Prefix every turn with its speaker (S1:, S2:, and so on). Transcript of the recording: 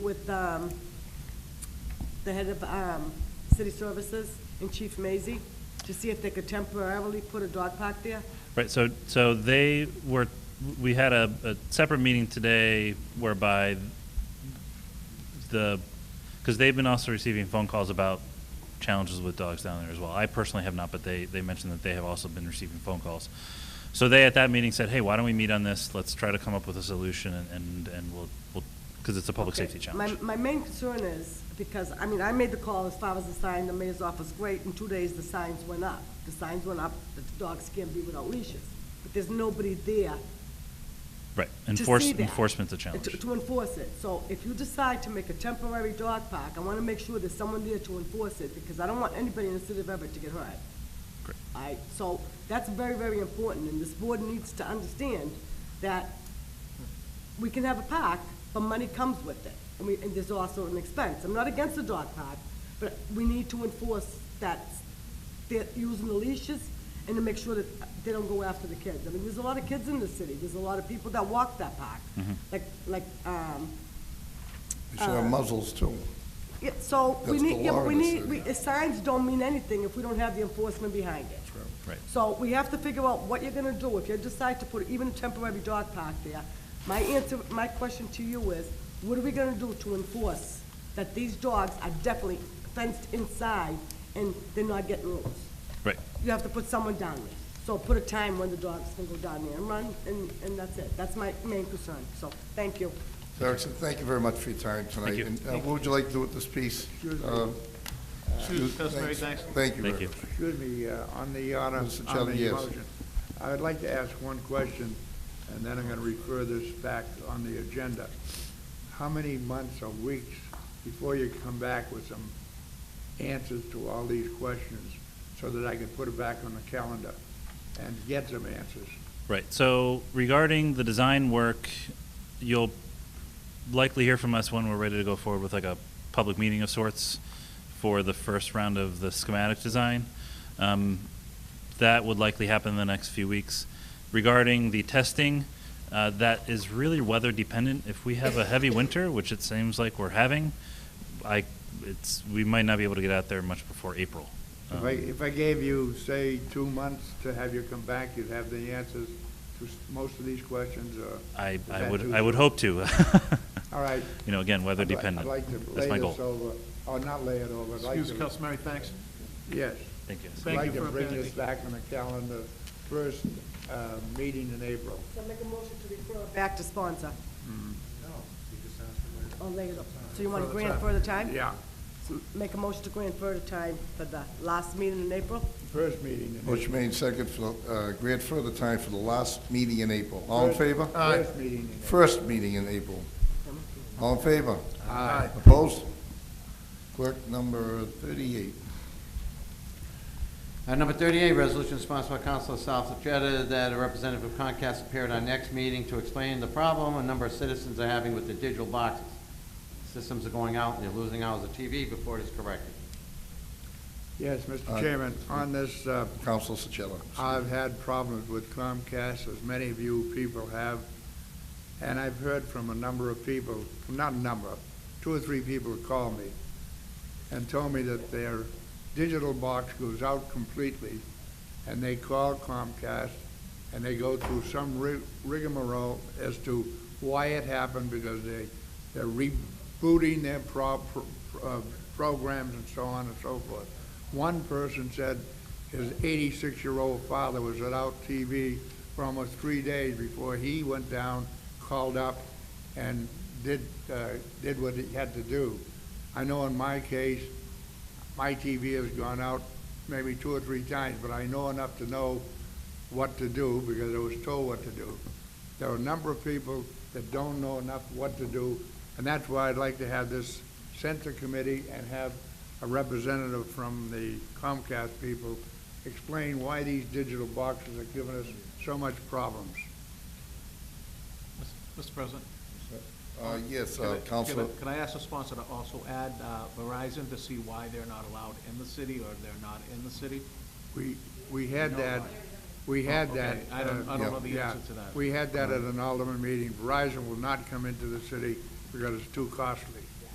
S1: with um, the head of um, city services and Chief Maisy to see if they could temporarily put a dog park there.
S2: Right, so, so they were, we had a, a separate meeting today whereby the, because they've been also receiving phone calls about challenges with dogs down there as well. I personally have not, but they, they mentioned that they have also been receiving phone calls. So they, at that meeting, said, hey, why don't we meet on this? Let's try to come up with a solution and- and, and we'll, we'll, because it's a public safety challenge.
S1: My, my main concern is, because, I mean, I made the call as far as the sign, the mayor's office, great, in two days, the signs went up. The signs went up, the dogs can't be without leashes, but there's nobody there
S2: Right,
S1: to see
S2: enforce,
S1: that.
S2: enforcement's a challenge.
S1: To- To enforce it. So if you decide to make a temporary dog park, I want to make sure there's someone there to enforce it, because I don't want anybody in the city of Everett to get hurt.
S2: Correct.
S1: All right, so that's very, very important, and this board needs to understand that we can have a park, but money comes with it, and we, and there's also an expense. I'm not against the dog park, but we need to enforce that they're using the leashes and to make sure that they don't go after the kids. I mean, there's a lot of kids in the city. There's a lot of people that walk that park. Like, like, um,
S3: They should have muzzles too.
S1: yeah, so we
S3: That's the
S1: need, yeah, but
S3: law
S1: we
S3: in the
S1: need,
S3: city.
S1: we, uh, signs don't mean anything if we don't have the enforcement behind it.
S2: Right.
S1: So we have to figure out what you're gonna do. If you decide to put even a temporary dog park there, my answer, my question to you is, what are we gonna do to enforce that these dogs are definitely fenced inside and they're not getting loose?
S2: Right.
S1: You have to put someone down there. So put a time when the dogs can go down there and run, and, and that's it. That's my main concern, so, thank you.
S3: So Erickson, thank you very much for your time tonight.
S2: Thank you.
S3: And uh, what would you like to do with this piece? Uh,
S4: Excuse me,
S3: you-
S4: Councilman, thanks.
S3: Thank you
S2: Thank
S3: very
S2: you.
S3: much.
S4: Excuse me, uh, on the, on
S3: Mr.
S4: the on
S3: Chairman,
S4: the
S3: yes.
S4: motion. I would like to ask one question, and then I'm going to refer this back on the agenda. How many months or weeks before you come back with some answers to all these questions so that I can put it back on the calendar and get some answers?
S2: Right, so regarding the design work, you'll likely hear from us when we're ready to go forward with like a public meeting of sorts for the first round of the schematic design. Um, That would likely happen in the next few weeks. Regarding the testing, uh, that is really weather dependent. If we have a heavy winter, which it seems like we're having, I, it's, we might not be able to get out there much before April. Um,
S4: If I, if I gave you, say, two months to have you come back, you'd have the answers to s- most of these questions, or?
S2: I,
S4: is
S2: I
S4: that
S2: would,
S4: too
S2: I would
S4: soon?
S2: hope to.
S4: All right.
S2: You know, again, weather
S4: I'd li-
S2: dependent.
S4: I'd like to
S2: That's my
S4: lay
S2: goal.
S4: this over, or not lay it over, I'd like
S5: Excuse
S4: to.
S5: me, Councilmary, thanks.
S4: Yes.
S2: Thank you.
S4: I'd
S5: Thank
S4: like
S5: you
S4: to
S5: for
S4: bring
S5: updating
S4: this
S5: me.
S4: back on the calendar, first uh, meeting in April.
S1: So make a motion to refer. Back to sponsor. No, you just asked for later. Oh, later. So you want to
S4: Further
S1: grant
S4: time.
S1: further time?
S4: Yeah,
S1: So Make a motion to grant further time for the last meeting in April?
S4: first meeting in April.
S3: Motion made second for, uh, grant further time for the last meeting in April. All in
S4: First-
S3: favor?
S4: First meeting in April.
S3: First meeting in April. All in favor?
S4: Aye.
S3: Opposed? Clerk number thirty-eight.
S6: Uh, Number 38, resolution sponsored by Councilor Salvatierra that a representative of Comcast appeared at our next meeting to explain the problem a number of citizens are having with the digital boxes. Systems are going out, and they're losing hours of TV before it is corrected.
S4: Yes, Mr.
S3: Aye.
S4: Chairman, on this, uh,
S3: Council Sochello.
S4: I've had problems with Comcast, as many of you people have, and I've heard from a number of people, not a number, two or three people called me and told me that their digital box goes out completely, and they call Comcast, and they go through some ri- rigmarole as to why it happened, because they, they're rebooting their pro, pro- uh, programs and so on and so forth. One person said his eighty-six-year-old father was without TV for almost three days before he went down, called up, and did, uh, did what he had to do. I know in my case, my TV has gone out maybe two or three times, but I know enough to know what to do because I was told what to do. There are a number of people that don't know enough what to do, and that's why I'd like to have this sent to committee and have a representative from the Comcast people explain why these digital boxes are giving us so much problems.
S5: Mr. President.
S3: Uh, yes,
S5: can
S3: uh,
S5: I- can I-
S3: Council,
S5: Can I ask the sponsor to also add uh, Verizon to see why they're not allowed in the city or they're not in the city?
S4: We, we had
S5: No,
S4: that,
S5: I-
S4: we had
S5: okay.
S4: that.
S5: I don't-
S4: uh,
S5: I don't know the
S4: yeah,
S5: answer to that. Uh-huh.
S4: We had that at an Alderman meeting. Verizon will not come into the city because it's too costly.